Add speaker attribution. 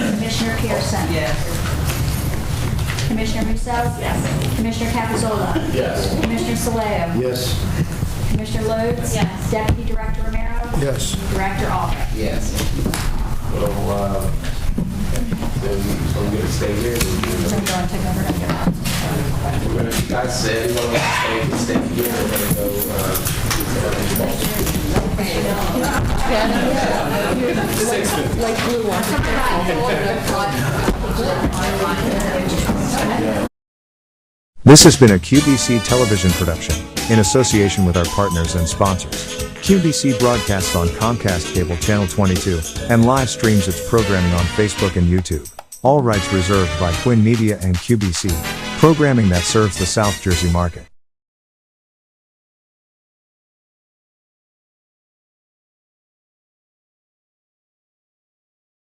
Speaker 1: Pearson.
Speaker 2: Yes.
Speaker 1: Commissioner Musso? Yes. Commissioner Capizola?
Speaker 3: Yes.
Speaker 1: Commissioner Saleo?
Speaker 3: Yes.
Speaker 1: Commissioner Lodes? Yes. Deputy Director Romero?
Speaker 3: Yes.
Speaker 1: Director Albrecht?
Speaker 2: Yes.
Speaker 4: So, uh, then, so we're gonna stay here.
Speaker 1: So
Speaker 4: and
Speaker 1: we're going to take over under
Speaker 4: We're gonna, like I said, we wanna stay, we stay here, we're gonna go, uh, six fifty.
Speaker 5: This has been a QBC television production, in association with our partners and sponsors. QBC broadcasts on Comcast Cable Channel 22, and live streams its programming on Facebook and YouTube. All rights reserved by Quinn Media and QBC, programming that serves the South Jersey market.